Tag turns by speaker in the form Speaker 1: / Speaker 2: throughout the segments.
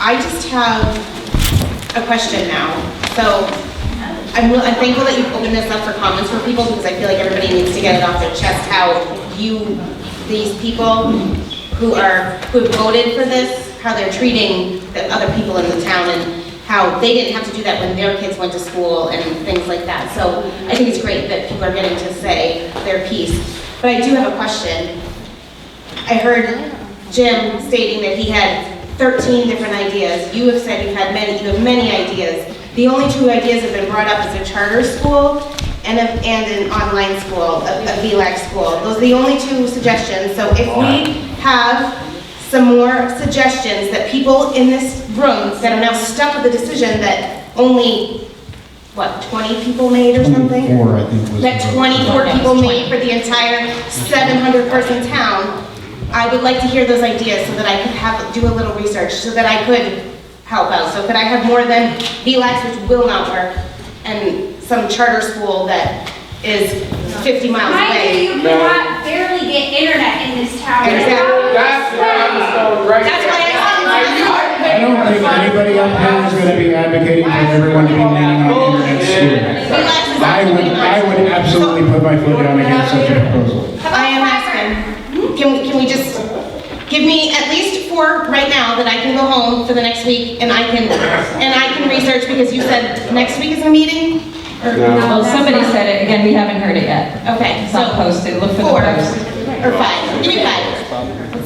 Speaker 1: I just have a question now. So I'm, will- I'm thankful that you've opened this up for comments for people because I feel like everybody needs to get it off their chest how you, these people who are, who have voted for this, how they're treating the other people in the town and how they didn't have to do that when their kids went to school and things like that. So I think it's great that people are getting to say their piece. But I do have a question. I heard Jim stating that he had 13 different ideas. You have said you've had many, you have many ideas. The only two ideas that have been brought up is a charter school and a, and an online school, a a VLAC school. Those are the only two suggestions. So if we have some more suggestions that people in this room that are now stuck with the decision that only, what, 20 people made or something?
Speaker 2: Four, I think was.
Speaker 1: that
Speaker 2: the-
Speaker 1: 24 people made for the entire 700-person town, I would like to hear those ideas so that I could have, do a little research, so that I could help out. So could I have more than E VLAX, which will not work, and some charter school that is 50 miles
Speaker 3: Mind
Speaker 1: away?
Speaker 3: you, you cannot barely get internet in this town.
Speaker 1: Exactly.
Speaker 4: That's where I'm going right
Speaker 1: That's why I said, E
Speaker 2: I don't think anybody up here is gonna be advocating for everyone to be leaning on internet schooling.
Speaker 1: VLAX is
Speaker 2: I would, I would absolutely put my foot down against such a proposal.
Speaker 3: How about
Speaker 1: I am
Speaker 3: fiber?
Speaker 1: asking, "Hmm? can we, can we just, give me at least four right now that I can go home for the next week and I can, and I can research because you said next week is a meeting? Or-
Speaker 5: Well, somebody said it, again, we haven't heard it yet.
Speaker 1: Okay,
Speaker 5: It's
Speaker 1: so
Speaker 5: not posted, look for the
Speaker 1: four
Speaker 5: post.
Speaker 1: or five, give me five.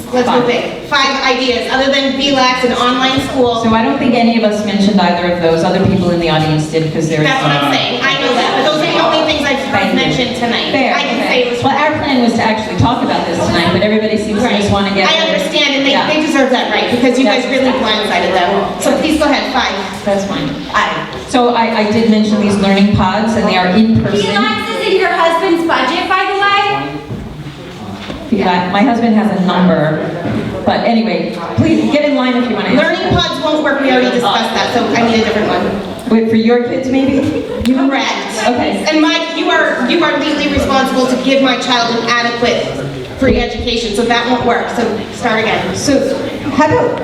Speaker 1: Let's go big. Five ideas, other than BLAX and online school.
Speaker 5: So I don't think any of us mentioned either of those, other people in the audience did, because they're.
Speaker 1: That's what I'm saying, I know that, but those are the only things I've heard mentioned tonight.
Speaker 5: Fair,
Speaker 1: I can
Speaker 5: fair.
Speaker 1: say it was.
Speaker 5: Well, our plan was to actually talk about this tonight, but everybody seems to just want to get.
Speaker 1: I understand, and they,
Speaker 5: Yeah,
Speaker 1: they deserve that right, because you guys really blindsided them. So please go ahead, five.
Speaker 5: That's fine. So I, I did mention these learning pods, and they are in person.
Speaker 3: Felix is in your husband's budget, by the way.
Speaker 5: Yeah, My husband has a number, but anyway, please get in line if you want to.
Speaker 1: Learning pods won't work, we already discussed that, so I need a different one.
Speaker 5: Wait, for your kids maybe?
Speaker 1: Correct.
Speaker 5: Okay.
Speaker 1: And Mike, you are, you are legally responsible to give my child an adequate free education, so that won't work, so start again.
Speaker 5: So, how about,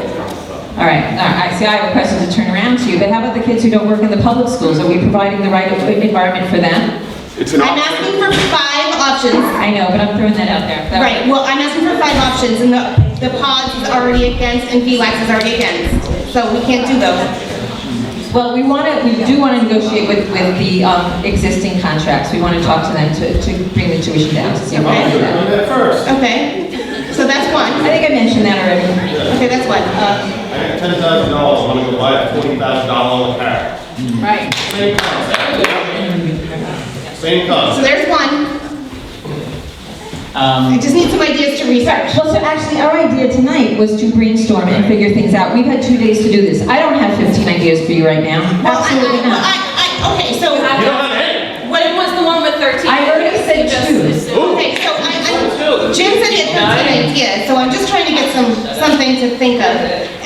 Speaker 5: all right, all right, I see, I have a question to turn around to you, but how about the kids who don't work in the public schools? Are we providing the right environment for them?
Speaker 4: It's an
Speaker 1: I'm
Speaker 4: option.
Speaker 1: asking for five options.
Speaker 5: I know, but I'm throwing that out there. That-
Speaker 1: Right, well, I'm asking for five options, and the, the pods is already against, and VLAX is already against, so we can't do those.
Speaker 5: Well, we want to, we do want to negotiate with, with the um, existing contracts. We want to talk to them to, to bring the tuition down to see what they
Speaker 4: Do
Speaker 5: do.
Speaker 4: that first.
Speaker 1: Okay, so that's
Speaker 5: I
Speaker 1: one.
Speaker 5: think I mentioned that already.
Speaker 1: Okay, that's one. Uh,
Speaker 6: I got ten thousand dollars, I'm gonna go buy a forty thousand dollar car.
Speaker 5: Right.
Speaker 6: Same concept. Same concept.
Speaker 1: So there's one. I
Speaker 7: Um,
Speaker 1: just need some ideas to research.
Speaker 5: Well, so actually, our idea tonight was to brainstorm and figure things out. We've had two days to do this. I don't have 15 ideas for you right now.
Speaker 1: Well, I,
Speaker 5: Absolutely
Speaker 1: I, well,
Speaker 5: not.
Speaker 1: I, I, okay, so,
Speaker 4: You
Speaker 1: okay,
Speaker 4: don't have any.
Speaker 8: What was the one with 13?
Speaker 5: I already said two.
Speaker 1: so I, I, Jim said he had an idea, so I'm just trying to get some, something to think of.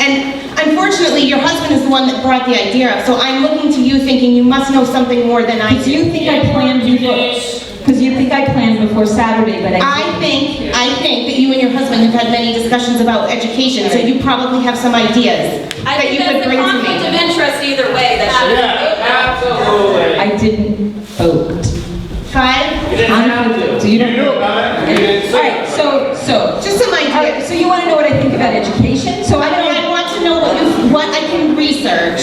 Speaker 1: And unfortunately, your husband is the one that brought the idea up, so I'm looking to you thinking you must know something more than I
Speaker 5: Do
Speaker 1: do.
Speaker 5: you think I planned before? Because you think I planned before Saturday, but I.
Speaker 1: I think, I think that you and your husband have had many discussions about education, so you probably have some ideas
Speaker 8: I
Speaker 1: that
Speaker 8: think
Speaker 1: you could
Speaker 8: that's a
Speaker 1: bring to
Speaker 8: conflict of
Speaker 1: me.
Speaker 8: interest either way, that should.
Speaker 4: Yeah, absolutely.
Speaker 5: I didn't vote.
Speaker 1: Five,
Speaker 4: You didn't have
Speaker 5: So
Speaker 4: to.
Speaker 5: you
Speaker 4: You
Speaker 5: don't.
Speaker 4: knew about it, you didn't
Speaker 5: All
Speaker 4: say
Speaker 5: right, so, so,
Speaker 1: just some
Speaker 5: all right,
Speaker 1: ideas.
Speaker 5: so you want to know what I think about education? So I
Speaker 1: But I
Speaker 5: don't.
Speaker 1: want to know what you, what I can research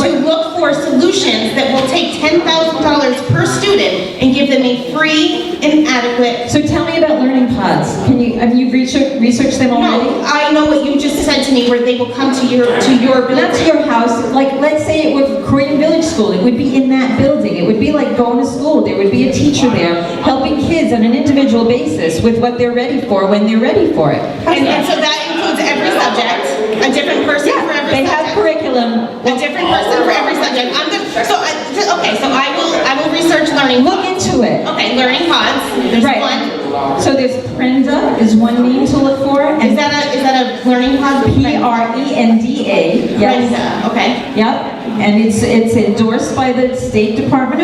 Speaker 1: to look for solutions that will take ten thousand dollars per student and give them a free and adequate.
Speaker 5: So tell me about learning pods. Can you, have you researched, researched them
Speaker 1: No,
Speaker 5: already?
Speaker 1: I know what you just said to me, where they will come to your, to your
Speaker 5: Not to
Speaker 1: building.
Speaker 5: your house, like, let's say it were Croydon Village School, it would be in that building. It would be like going to school. There would be a teacher there helping kids on an individual basis with what they're ready for, when they're ready for it. How's
Speaker 1: And,
Speaker 5: that?
Speaker 1: and so that includes every subject, a different person for
Speaker 5: Yeah, they
Speaker 1: every
Speaker 5: have
Speaker 1: subject.
Speaker 5: curriculum.
Speaker 1: A different person for every subject. I'm good, so I, so- okay, so I will, I will research learning.
Speaker 5: Look into it.
Speaker 1: Okay, learning pods, there's
Speaker 5: Right.
Speaker 1: one.
Speaker 5: So there's Prenda is one name to look for,
Speaker 1: Is
Speaker 5: and
Speaker 1: that a, is that a learning pod?
Speaker 5: P R E N D A. Yes.
Speaker 1: Okay.
Speaker 5: Yep. And it's it's endorsed by the State Department of